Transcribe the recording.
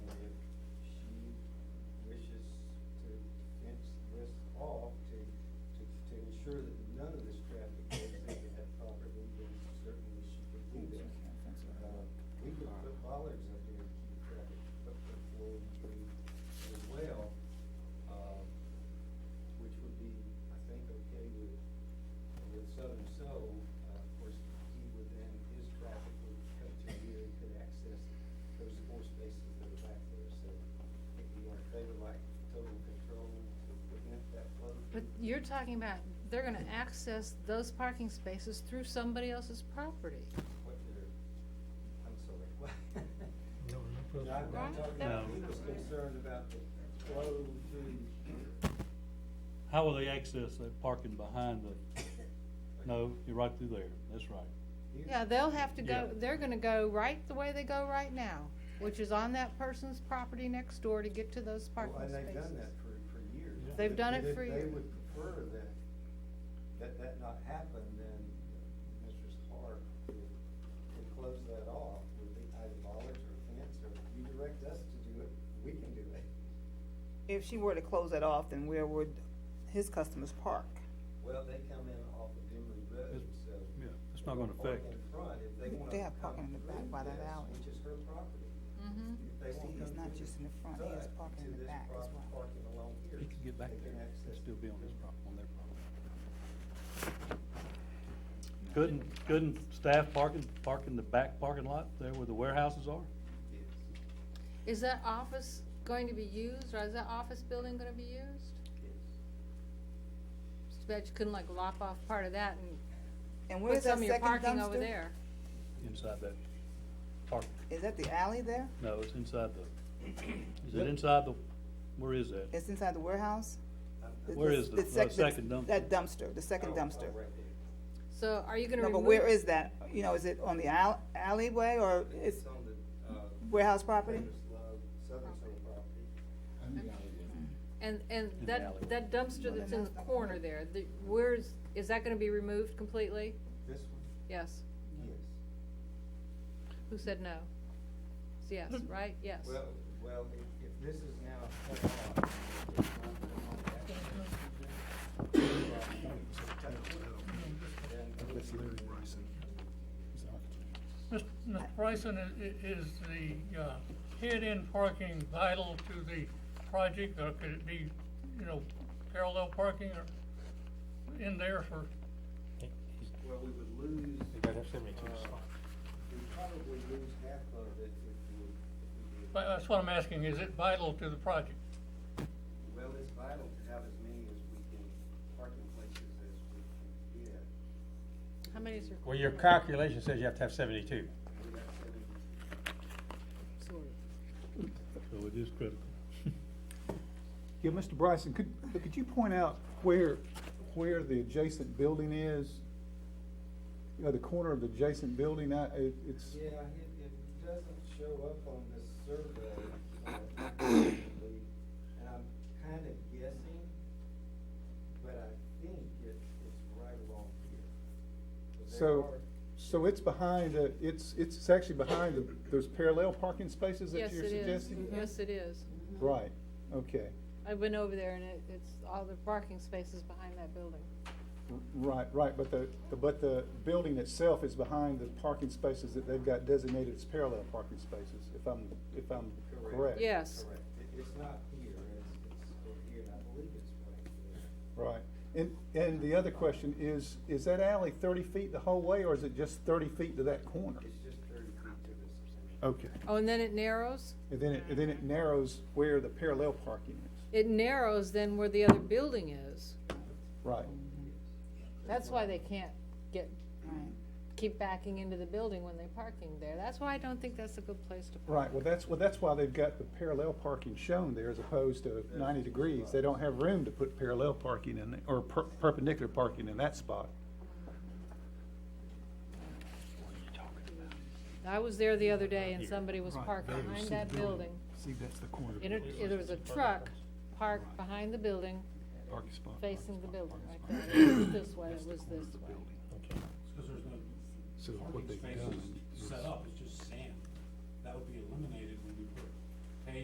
you're talking about, they're gonna access those parking spaces through somebody else's property. What did, I'm sorry, what? No, no problem. No, I'm Right? not talking No. about, he was concerned about the flow to. How will they access that parking behind the, no, you're right through there, that's right. You- Yeah, they'll have to go, Yeah. they're gonna go right the way they go right now, which is on that person's property next door to get to those Well, parking and spaces. they've done that for, for years. Yeah. They've If- done if it for They years. would prefer that, that that not happen, then Mr. Clark would, would close that off with the either bollards or fence, or you direct us to do it, we can do it. If she were to close that off, then where would his customers park? Well, they come in off of Emory Road, It's- so. yeah, it's they not gonna can park affect. In front, if they wanna. They have come parking in the back through by that this, alley. Which is her property. Mhm. If they See, won't it's come not through just in the front, he side has parking to in the this back as property, well. Parking along here. He could get back they can there, access and still be on his prop, on their property. No. Couldn't, couldn't staff parking, park in the back parking lot there where the warehouses are? Yes. Is that office going to be used, or is that office building gonna be used? Yes. It's too bad you couldn't like lop off part of that and And put where's that some of your second parking over dumpster? there. Inside that park, Is that the alley there? no, it's inside the, is it inside the, where is that? It's inside the warehouse? The- Where the- is the- the sec- second dumpster? That dumpster, the second Oh, oh, dumpster. right there. So are you gonna No, remove? but where is that? You know, is it on the al- alleyway or it's It's on the, uh. warehouse property? Taylor's Love, Southern Soul property. And, and the that, alleyway. that dumpster that's in the corner there, the, where's, is that gonna be removed completely? This one? Yes. Yes. Who said no? It's yes, Hmm. right? Yes. Well, well, if, if this is now cut off, it's not going on that then That's Larry Bryson. He's an architect. Mr. Bryson, i- i- is the uh, head-in parking vital to the project, or could it be, you know, parallel parking or in there for, Well, we would lose. They gotta have 72 uh, spots. We'd probably lose half of it if we, if we did. but that's what I'm asking, is it vital to the project? Well, it's vital to have as many as we can, parking places as we can get. How many is your? Well, your calculation says you have to have seventy-two. We got seventy. So it is critical. Yeah, Mr. Bryson, could, could you point out where, where the adjacent building is? You know, the corner of the adjacent building, I, it, it's, Yeah, it, it doesn't show up on this survey, uh, accurately, and I'm kind of guessing, but I think it, it's right along here. But there so, are- so it's behind, the- it's, it's it's actually behind the- those parallel parking spaces that Yes, you're it is. Mm-hmm. suggesting? Yes, it is. Right, okay, I've been over there and it, it's all the parking spaces behind that building. R- right, right, but the, but the building itself is behind the parking spaces that they've got designated as parallel parking spaces, if I'm, if I'm correct. Yes. Correct, It- it's not here, it's, it's over here, and I believe it's right here. Right, and, and the other question is, is that alley thirty feet the whole way, or is it just thirty feet to that corner? It's just thirty feet to this. Okay, Oh, and then it narrows? and then it, and then it narrows where the parallel parking is, It narrows then where the other building is. right, That's why they can't get, Right. keep backing into the building when they're parking there. That's why I don't think that's a good place to park. right, well, that's, well, that's why they've got the parallel parking shown there as opposed to ninety degrees, they don't have room to put parallel parking in, there or per- perpendicular parking in that spot. I was there the other day and somebody was Right, parked there you behind see that the building. See, that's the corner. In a, there was a truck parked behind the building, Parking spot. facing the building right there. It was this way, it was this way. Because there's no So what parking they've spaces done set is- up, it's just sand. That would be eliminated